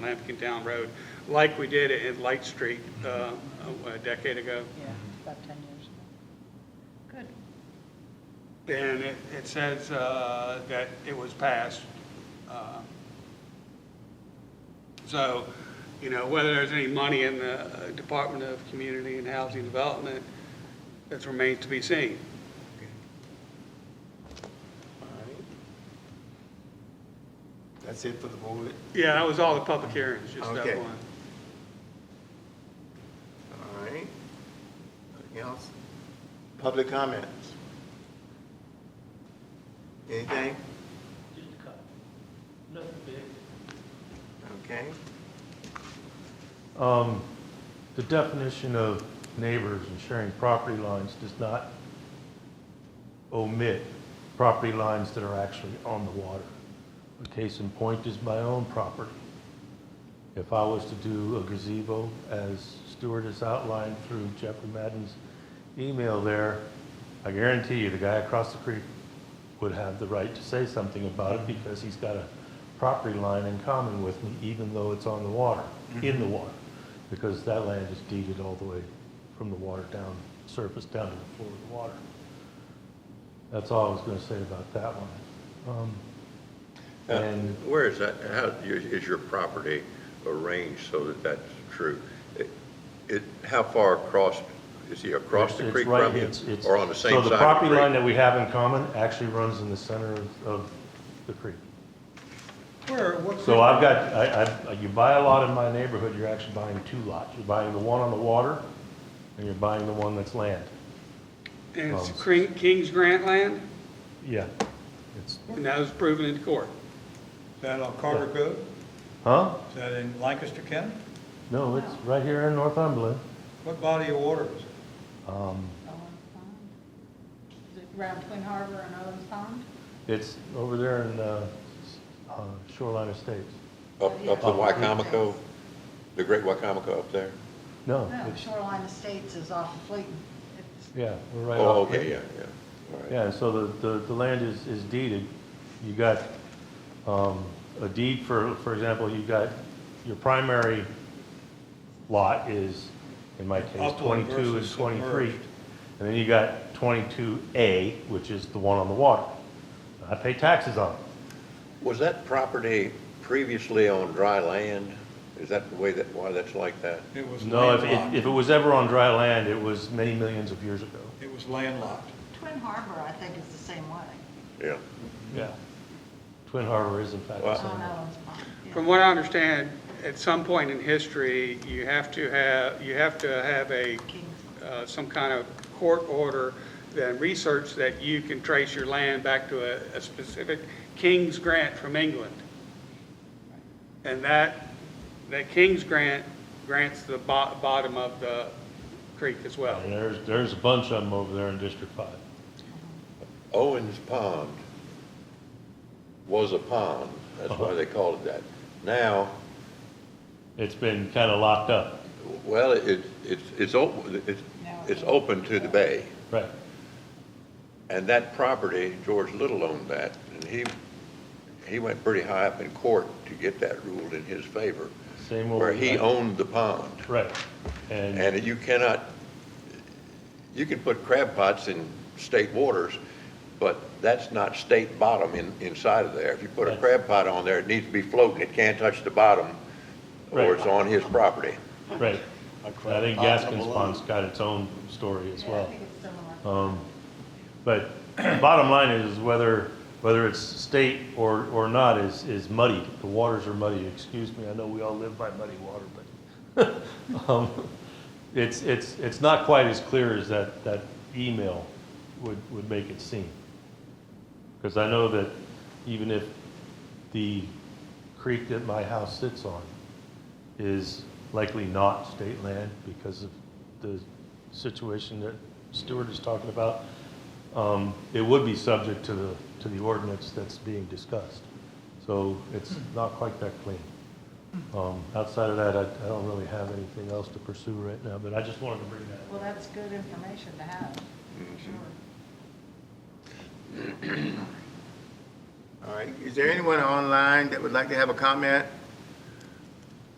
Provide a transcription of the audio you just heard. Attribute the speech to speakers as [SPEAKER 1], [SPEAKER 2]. [SPEAKER 1] Lampkin Town Road, like we did at Light Street uh, a decade ago.
[SPEAKER 2] Yeah, about 10 years ago. Good.
[SPEAKER 1] And it, it says uh, that it was passed. uh, So, you know, whether there's any money in the uh, Department of Community and Housing Development, that remains to be seen.
[SPEAKER 3] That's it for the board?
[SPEAKER 1] Yeah, that was all the public hearings, just that
[SPEAKER 3] Okay.
[SPEAKER 1] one.
[SPEAKER 3] All right. Anything else? Public comments? Anything?
[SPEAKER 4] Just a couple. Nothing big.
[SPEAKER 3] Okay.
[SPEAKER 5] Um, The definition of neighbors and sharing property lines does not omit property lines that are actually on the water. A case in point is my own property. If I was to do a gazebo, as Stuart has outlined through Jeffrey Madden's email there, I guarantee you, the guy across the creek would have the right to say something about it because he's got a property line in common with me, even though it's on the water, in the water, because that land is deeded all the way from the water down, surface down to the floor of the water. That's all I was going to say about that one. Um,
[SPEAKER 6] Uh,
[SPEAKER 5] And
[SPEAKER 6] Where is that, how, is your property arranged so that that's true? It- It, how far across, is he across the
[SPEAKER 5] It's-
[SPEAKER 6] creek
[SPEAKER 5] it's right-
[SPEAKER 6] from you?
[SPEAKER 5] it's- it's-
[SPEAKER 6] Or on the same side of
[SPEAKER 5] So the
[SPEAKER 6] the
[SPEAKER 5] property line
[SPEAKER 6] creek?
[SPEAKER 5] that we have in common actually runs in the center of, of the creek.
[SPEAKER 4] Where, what?
[SPEAKER 7] Hmm.
[SPEAKER 5] So I've got, I, I, you buy a lot in my neighborhood, you're actually buying two lots. You're buying the one on the water, and you're buying the one that's land.
[SPEAKER 1] And it's
[SPEAKER 5] Oh.
[SPEAKER 1] Cre- King's Grant land,
[SPEAKER 5] Yeah. It's,
[SPEAKER 1] and that was proven in court.
[SPEAKER 7] Is that on Carter Road?
[SPEAKER 5] huh?
[SPEAKER 7] Is that in Lancaster County?
[SPEAKER 5] No, it's right here in Northumberland.
[SPEAKER 7] What body of water is it?
[SPEAKER 5] Um,
[SPEAKER 2] Owen Pond. Oh, Is it around Twin Harbor and Owen Pond?
[SPEAKER 5] it's over there in, uh, uh, Shoreline Estates.
[SPEAKER 6] Up, up the Wycomico, the great Wycomico up there?
[SPEAKER 5] No,
[SPEAKER 7] Oh.
[SPEAKER 2] No,
[SPEAKER 5] it's,
[SPEAKER 2] Shoreline Estates is off of Fleeton. It's
[SPEAKER 5] yeah, we're right off.
[SPEAKER 6] Oh, okay, yeah, yeah, all right.
[SPEAKER 5] Yeah, and so the, the, the land is, is deeded. You got, um, a deed for, for example, you got, your primary lot is, in my case,
[SPEAKER 7] Upland
[SPEAKER 5] twenty-two and
[SPEAKER 7] versus
[SPEAKER 5] twenty-three.
[SPEAKER 7] submerged.
[SPEAKER 5] And then you got twenty-two A, which is the one on the water. I pay taxes on it.
[SPEAKER 6] Was that property previously on dry land? Is that the way that, why that's like that?
[SPEAKER 7] It was
[SPEAKER 5] No, if, if-
[SPEAKER 7] landlocked.
[SPEAKER 5] if it was ever on dry land, it was many millions of years ago.
[SPEAKER 7] It was landlocked.
[SPEAKER 2] Twin Harbor, I think, is the same way.
[SPEAKER 6] Yeah.
[SPEAKER 7] Mm-hmm.
[SPEAKER 5] Yeah. Twin Harbor is in fact the
[SPEAKER 6] Wow.
[SPEAKER 5] same.
[SPEAKER 2] On Owen's Pond. yeah.
[SPEAKER 1] From what I understand, at some point in history, you have to have, you have to have a,
[SPEAKER 2] King's.
[SPEAKER 1] uh, some kind of court order that research that you can trace your land back to a, a specific king's grant from England. And that, that king's grant grants the bo- bottom of the creek as well.
[SPEAKER 5] And there's, there's a bunch of them over there in District Five.
[SPEAKER 6] Owens Pond was a pond, that's
[SPEAKER 5] Uh-huh.
[SPEAKER 6] why they called it that. Now,
[SPEAKER 5] It's been kind of locked up.
[SPEAKER 6] Well, it, it's, it's, op- it's, it's open to the bay,
[SPEAKER 5] Right.
[SPEAKER 6] and that property, George Little owned that, and he, he went pretty high up in court to get that ruled in his favor,
[SPEAKER 5] Same old.
[SPEAKER 6] where he owned the pond.
[SPEAKER 5] Right. And,
[SPEAKER 6] And you cannot, you can put crab pots in state waters, but that's not state bottom in, inside of there. If you put a
[SPEAKER 5] Right.
[SPEAKER 6] crab pot on there, it needs to be floating, it can't touch the bottom, or
[SPEAKER 5] Right.
[SPEAKER 6] it's on his property.
[SPEAKER 5] right. I think Gaskin's Pond's got its own story as
[SPEAKER 2] Yeah, I
[SPEAKER 5] well.
[SPEAKER 2] think it's similar.
[SPEAKER 5] Um, But bottom line is whether, whether it's state or, or not is, is muddy. The waters are muddy. Excuse me, I know we all live by muddy water, but um, it's, it's, it's not quite as clear as that, that email would, would make it seem. Because I know that even if the creek that my house sits on is likely not state land because of the situation that Stuart is talking about, um, it would be subject to the, to the ordinance that's being discussed. So it's not quite that clean. Um, Outside of that, I I don't really have anything else to pursue right now, but I just wanted to bring that up.
[SPEAKER 2] Well, that's good information to have, for
[SPEAKER 5] Mm-hmm.
[SPEAKER 2] sure.
[SPEAKER 3] All right. Is there anyone online that would like to have a comment?